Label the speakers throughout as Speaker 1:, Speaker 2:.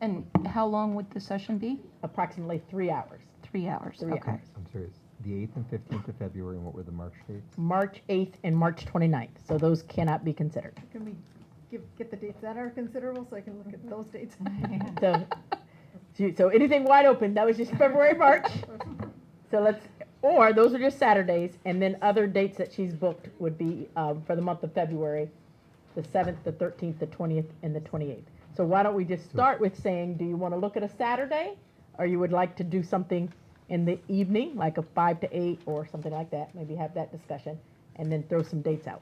Speaker 1: And how long would the session be?
Speaker 2: approximately three hours.
Speaker 1: Three hours,
Speaker 2: Three
Speaker 1: okay.
Speaker 2: hours.
Speaker 3: I'm sorry, it's the 8th and 15th of February, and what were the March dates?
Speaker 2: March 8th and March 29th, so those cannot be considered.
Speaker 4: Can we give, get the dates that are considerable so I can
Speaker 1: Mm-hmm.
Speaker 4: look at those dates?
Speaker 2: So, so- so anything wide open, that was just February, March. So let's, or those are just Saturdays, and then other dates that she's booked would be um, for the month of February, the 7th, the 13th, the 20th, and the 28th. So why don't we just start with saying, do you want to look at a Saturday? Or you would like to do something in the evening, like a 5 to 8 or something like that, maybe have that discussion, and then throw some dates out.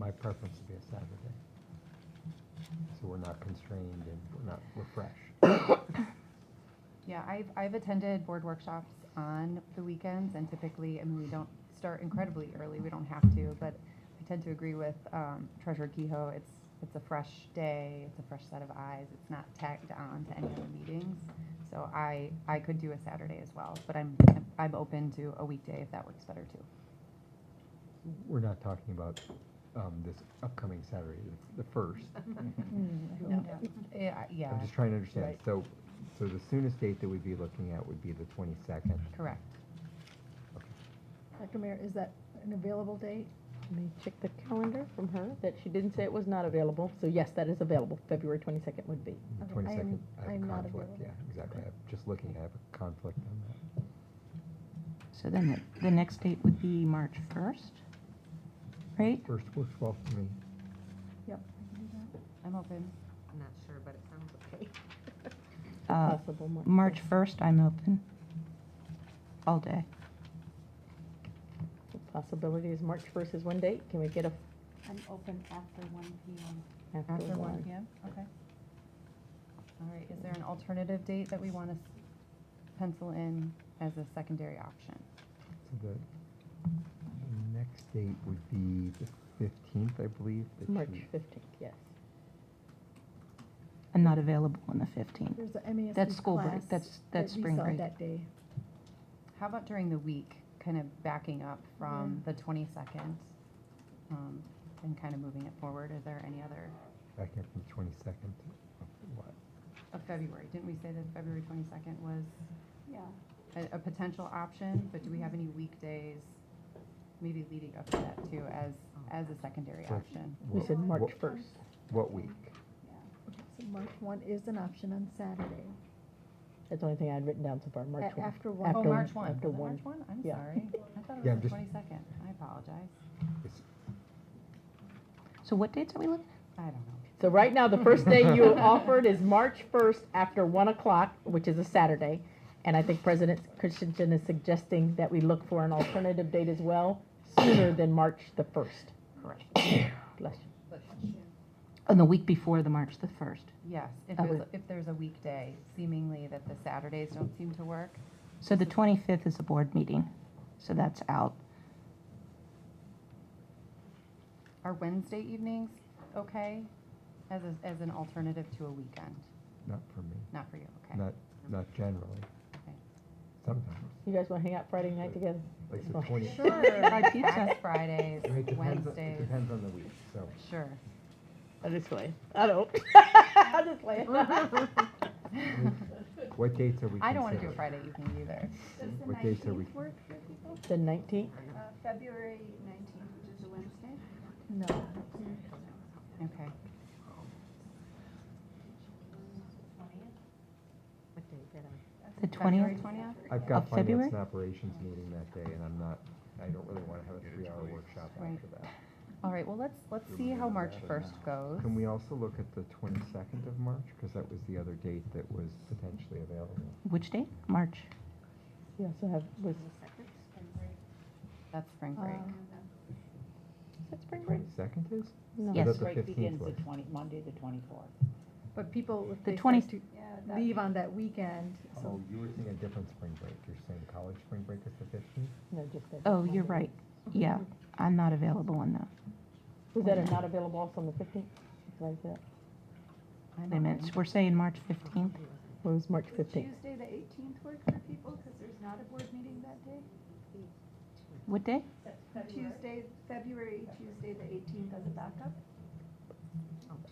Speaker 3: My preference would be a Saturday. So we're not constrained and we're not, we're fresh.
Speaker 5: Yeah, I've, I've attended board workshops on the weekends and typically, I mean, we don't start incredibly early, we don't have to, but I tend to agree with um, Treasurer Kehoe, it's, it's a fresh day, it's a fresh set of eyes, it's not tagged on to any other meetings. So I, I could do a Saturday as well, but I'm, I'm open to a weekday if that works better too.
Speaker 3: We're not talking about um, this upcoming Saturday, the- the 1st.
Speaker 5: Yeah, yeah,
Speaker 3: I'm just trying to understand.
Speaker 2: Right.
Speaker 3: So, so the soonest date that we'd be looking at would be the 22nd.
Speaker 5: correct.
Speaker 4: Dr. Mayor, is that an available date?
Speaker 2: Let me check the calendar from her, Mm-hmm. that she didn't say it was not available, so yes, that is available, February 22nd would be.
Speaker 3: The
Speaker 4: Okay,
Speaker 3: 22nd,
Speaker 4: I'm-
Speaker 3: I have a
Speaker 4: I'm not
Speaker 3: conflict. Yeah,
Speaker 4: available.
Speaker 3: exactly. I'm just looking, I have a conflict on that.
Speaker 1: So then the- the next date would be March 1st, right?
Speaker 3: First works well for me.
Speaker 5: I'm open.
Speaker 6: I'm not sure, but it sounds okay.
Speaker 1: Uh,
Speaker 2: Possible March
Speaker 1: March 1st, I'm open all day.
Speaker 2: The Possibility is March 1st is one date, can we get a,
Speaker 7: I'm open after one PM.
Speaker 2: after
Speaker 5: After one
Speaker 2: one?
Speaker 5: PM, okay. All right, is there an alternative date that we want to pencil in as a secondary option?
Speaker 3: So the the next date would be the 15th, I believe. that
Speaker 2: March
Speaker 3: she-
Speaker 2: 15th, yes.
Speaker 1: I'm not available on the 15th.
Speaker 4: There's a MESD
Speaker 1: That's school break,
Speaker 4: class
Speaker 1: that's-
Speaker 4: that
Speaker 1: that's
Speaker 4: we
Speaker 1: spring
Speaker 4: saw
Speaker 1: break.
Speaker 4: That day.
Speaker 5: How about during the week, kind of backing up from the twenty-second? um, And kind of moving it forward, is there any other,
Speaker 3: Back in from the 22nd of what?
Speaker 5: of February, didn't we say that February twenty-second was
Speaker 7: Yeah.
Speaker 5: a, a potential option? But do we have any weekdays, maybe leading up to that too, as, as a secondary
Speaker 3: Sure.
Speaker 5: option?
Speaker 2: We
Speaker 3: What-
Speaker 2: said March
Speaker 3: what-
Speaker 2: 1st.
Speaker 3: What week?
Speaker 4: Okay, So March 1 is an option on Saturday.
Speaker 2: That's the only thing I'd written down so far, March
Speaker 4: A-
Speaker 2: 1.
Speaker 4: After
Speaker 5: Oh,
Speaker 4: 1.
Speaker 2: After-
Speaker 5: March one,
Speaker 2: after
Speaker 5: was it
Speaker 2: one.
Speaker 5: March one? I'm
Speaker 2: Yeah.
Speaker 5: sorry, I
Speaker 3: Yeah, I'm
Speaker 5: thought it was the
Speaker 3: just-
Speaker 5: twenty-second, I apologize.
Speaker 3: It's-
Speaker 1: So what dates are we looking?
Speaker 5: I don't know.
Speaker 2: So right now, the first day you offered is March 1st after 1 o'clock, which is a Saturday. And I think President Christensen is suggesting that we look for an alternative date as well, sooner than March the 1st. Correct. Bless you.
Speaker 1: On Oh, the week before the March the 1st.
Speaker 5: Yes, if
Speaker 1: I
Speaker 5: there's,
Speaker 1: would-
Speaker 5: if there's a weekday, seemingly that the Saturdays don't seem to work.
Speaker 1: So the 25th is a board meeting, so that's out.
Speaker 5: Are Wednesday evenings okay as, a- as an alternative to a weekend?
Speaker 3: Not for me,
Speaker 5: Not for you, okay?
Speaker 3: not, not generally.
Speaker 5: Okay.
Speaker 3: Sometimes,
Speaker 2: You guys want to hang out Friday night together?
Speaker 3: like the
Speaker 2: Well,
Speaker 3: 20th.
Speaker 1: Buy pizza.
Speaker 5: Past Fridays,
Speaker 3: It depends on- It
Speaker 5: Wednesdays,
Speaker 3: depends on the week, so.
Speaker 5: sure.
Speaker 2: I just play. Uh, I don't. I just play.
Speaker 3: What dates are we considering?
Speaker 5: I don't want to do a Friday evening either.
Speaker 7: Does the
Speaker 3: What days are we-
Speaker 7: nineteenth work for people?
Speaker 2: The 19th?
Speaker 7: Uh, February nineteenth, which is a Wednesday?
Speaker 4: No.
Speaker 5: Okay,
Speaker 6: What day is that on?
Speaker 1: The
Speaker 5: February
Speaker 1: 20th?
Speaker 5: 20th?
Speaker 3: I've got
Speaker 1: Of
Speaker 3: finance
Speaker 1: February?
Speaker 3: and operations meeting that day, and I'm not, I don't really want to have a three-hour workshop
Speaker 5: Right.
Speaker 3: after that.
Speaker 5: All right, well, let's, let's see how March 1st goes.
Speaker 3: Can we also look at the 22nd of March? Because that was the other date that was potentially available.
Speaker 1: Which date? March.
Speaker 2: You also have, was,
Speaker 5: That's spring break.
Speaker 4: Um,
Speaker 2: is that spring break?
Speaker 3: 22nd is?
Speaker 2: No.
Speaker 3: Or
Speaker 1: Yes.
Speaker 3: that the
Speaker 8: Break
Speaker 3: 15th
Speaker 8: begins
Speaker 3: was?
Speaker 8: the twenty, Monday, the twenty-fourth.
Speaker 4: But people, if
Speaker 1: The
Speaker 4: they start
Speaker 1: 20
Speaker 4: to
Speaker 7: Yeah. that-
Speaker 4: leave on that weekend,
Speaker 3: Oh,
Speaker 4: so
Speaker 3: you were saying a different spring break. You're saying college spring break is the 15th?
Speaker 2: No, just that.
Speaker 1: Oh, you're right. Yeah, I'm not available on that.
Speaker 2: Was that a not available also on the 15th? Like that.
Speaker 5: I'm
Speaker 1: Wait a minute,
Speaker 5: open.
Speaker 1: so we're saying March 15th?
Speaker 2: It was March
Speaker 7: Would
Speaker 2: 15th.
Speaker 7: Tuesday, the eighteenth work for people, because there's not a board meeting that day?
Speaker 1: What day?
Speaker 7: Tuesday, February, Tuesday, the eighteenth as a backup?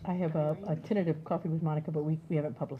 Speaker 2: I have a, a tentative coffee with Monica, but we, we haven't published